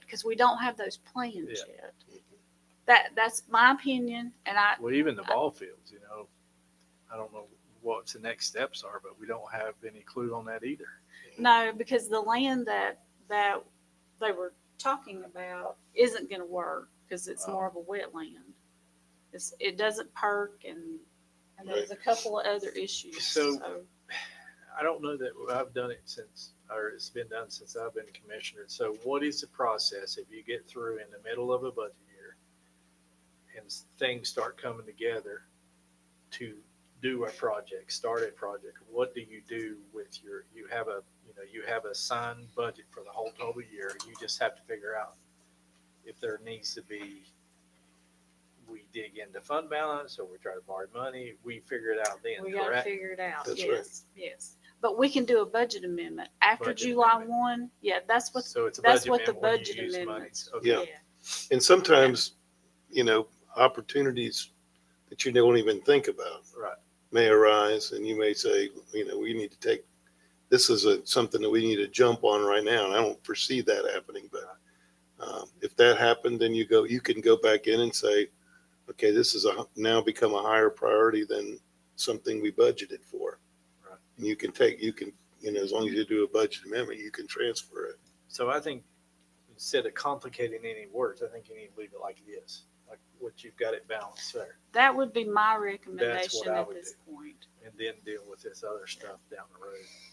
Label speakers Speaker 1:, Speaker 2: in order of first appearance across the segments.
Speaker 1: because we don't have those plans
Speaker 2: Yeah.
Speaker 1: yet. That, that's my opinion, and I,
Speaker 2: Well, even the ball fields, you know, I don't know what the next steps are, but we don't have any clue on that either.
Speaker 1: No, because the land that, that they were talking about isn't gonna work, cause it's
Speaker 2: Oh.
Speaker 1: more of a wetland. It's, it doesn't perk and, and there's a couple of other issues,
Speaker 2: So-
Speaker 1: so,
Speaker 2: I don't know that I've done it since, or it's been done since I've been commissioner. So what is the process if you get through in the middle of a budget year and s- things start coming together to do a project, start a project? What do you do with your, you have a, you know, you have a signed budget for the whole total year. You just have to figure out if there needs to be, we dig into fund balance or we try to borrow money. We figure it out then,
Speaker 1: we gotta
Speaker 2: correct?
Speaker 1: figure it out,
Speaker 3: That's right.
Speaker 1: yes, yes. But we can do a budget amendment after
Speaker 2: Budget
Speaker 1: July
Speaker 2: amendment.
Speaker 1: one, yeah, that's what,
Speaker 2: So it's a
Speaker 1: that's
Speaker 2: budget
Speaker 1: what the
Speaker 2: amendment when you
Speaker 1: budget
Speaker 2: use money.
Speaker 1: amendments-
Speaker 2: Okay.
Speaker 1: yeah,
Speaker 3: Yeah. And sometimes, you know, opportunities that you don't even think about
Speaker 2: Right.
Speaker 3: may arise and you may say, you know, we need to take, this is a, something that we need to jump on right now. And I don't foresee that happening, but um, if that happened, then you go, you can go back in and say, okay, this is a, now become a higher priority than something we budgeted for.
Speaker 2: Right.
Speaker 3: And you can take, you can, you know, as long as you do a budget amendment, you can transfer it.
Speaker 2: So I think instead of complicating any words, I think you need to leave it like it is, like what you've got it balanced there,
Speaker 1: that would be my recommendation
Speaker 2: I
Speaker 1: at
Speaker 2: would
Speaker 1: this point.
Speaker 2: and then deal with this other stuff down the road.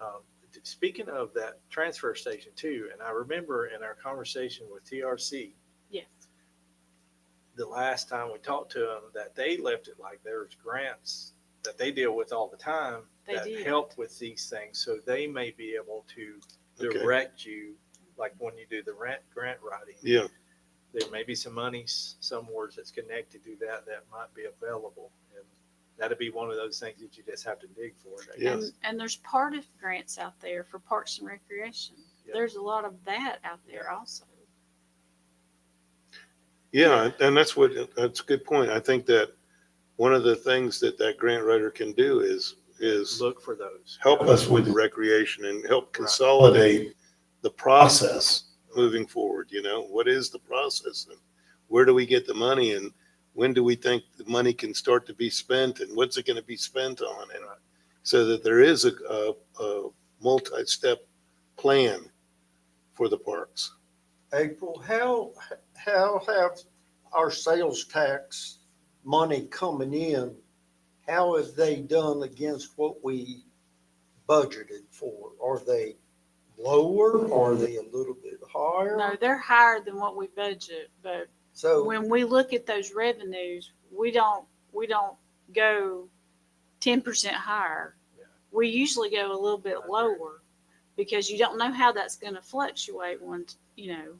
Speaker 2: Um, t- Speaking of that transfer station too, and I remember in our conversation with TRC,
Speaker 1: Yes,
Speaker 2: the last time we talked to them, that they left it like there's grants that they deal with all the time
Speaker 1: They
Speaker 2: that
Speaker 1: did.
Speaker 2: help with these things, so they may be able to
Speaker 3: Okay.
Speaker 2: direct you, like when you do the rent, grant writing.
Speaker 3: Yeah,
Speaker 2: there may be some monies somewhere that's connected to that that might be available. And that'd be one of those things that you just have to dig for. I guess.
Speaker 1: and, and there's part of grants out there for parks and recreation,
Speaker 2: Yeah.
Speaker 1: there's a lot of that out there
Speaker 2: Yeah.
Speaker 1: also.
Speaker 3: yeah, and that's what, that's a good point. I think that one of the things that that grant writer can do is, is
Speaker 2: Look for those.
Speaker 3: help us with recreation and help consolidate the process moving forward, you know, what is the process? and Where do we get the money and when do we think the money can start to be spent and what's it gonna be spent on? And so that there is a, a, a multi-step plan for the parks.
Speaker 4: April, how, how have our sales tax money coming in, how have they done against what we budgeted for? Are they lower? Are they a little bit
Speaker 1: No,
Speaker 4: higher?
Speaker 1: they're higher than what we budget, but
Speaker 2: Oh.
Speaker 4: So,
Speaker 1: when we look at those revenues, we don't, we don't go ten percent higher.
Speaker 2: Yeah.
Speaker 1: We usually go a little bit
Speaker 2: That's right.
Speaker 1: lower because you don't know how that's gonna fluctuate once, you know.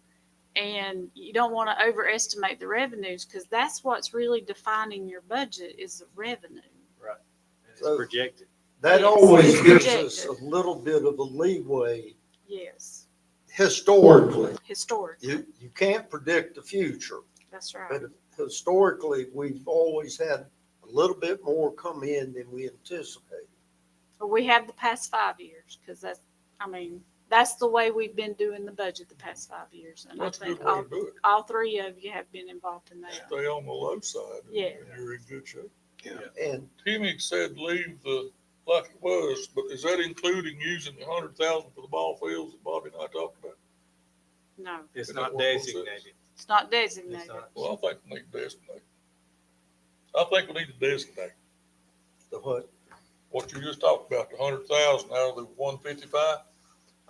Speaker 1: And you don't wanna overestimate the revenues, cause that's what's really defining your budget is the revenue.
Speaker 2: And it's
Speaker 4: So-
Speaker 2: projected.
Speaker 4: that
Speaker 1: Yes.
Speaker 4: always gives us a
Speaker 1: Projected.
Speaker 4: little bit of a leeway
Speaker 1: Yes,
Speaker 4: historically.
Speaker 1: historically,
Speaker 4: You, you can't predict the future.
Speaker 1: that's right.
Speaker 4: But historically, we've always had a little bit more come in than we anticipated.
Speaker 1: But we have the past five years, because that's, I mean, that's the way we've been doing the budget the past five years. And I
Speaker 5: That's a
Speaker 1: think
Speaker 5: good way
Speaker 1: all,
Speaker 5: to do it.
Speaker 1: all three of you have been involved in that.
Speaker 5: Stay on the low side. and
Speaker 1: Yeah.
Speaker 5: You're in good shape.
Speaker 4: And
Speaker 5: Timmy said leave the, like it was, but is that including using the hundred thousand for the ball fields that Bobby and I talked about?
Speaker 1: No,
Speaker 2: It's
Speaker 5: Is
Speaker 2: not
Speaker 5: that what it was?
Speaker 2: designated.
Speaker 1: it's not
Speaker 2: It's
Speaker 1: designated.
Speaker 2: not.
Speaker 5: Well, I think we need to designate. I think we need to designate
Speaker 4: the what,
Speaker 5: what you just talked about, the hundred thousand out of the one fifty-five.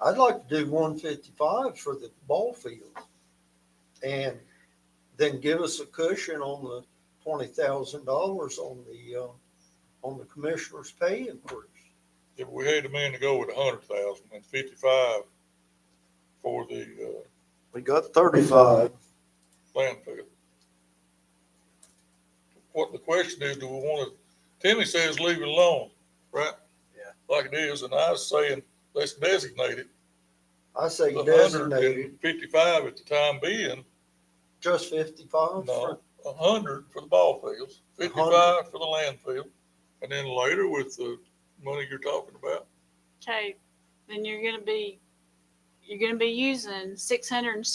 Speaker 4: I'd like to do one fifty-five for the ball field. And then give us a cushion on the twenty thousand dollars on the, uh, on the commissioner's pay increase.
Speaker 5: If we had a man to go with a hundred thousand and fifty-five for the,
Speaker 4: We got thirty-five.
Speaker 5: uh, landfill. What the question is, do we want to, Timmy says leave it alone, right?
Speaker 2: Yeah.
Speaker 5: Like it is, and I was saying, let's designate it.
Speaker 4: I say
Speaker 5: The
Speaker 4: designated,
Speaker 5: 155 at the time being,
Speaker 4: just fifty-five for
Speaker 5: no, a hundred for the ball fields, fifty-five for the landfill. And then later with the money you're talking about,
Speaker 1: Okay, then you're gonna be, you're gonna be using six hundred and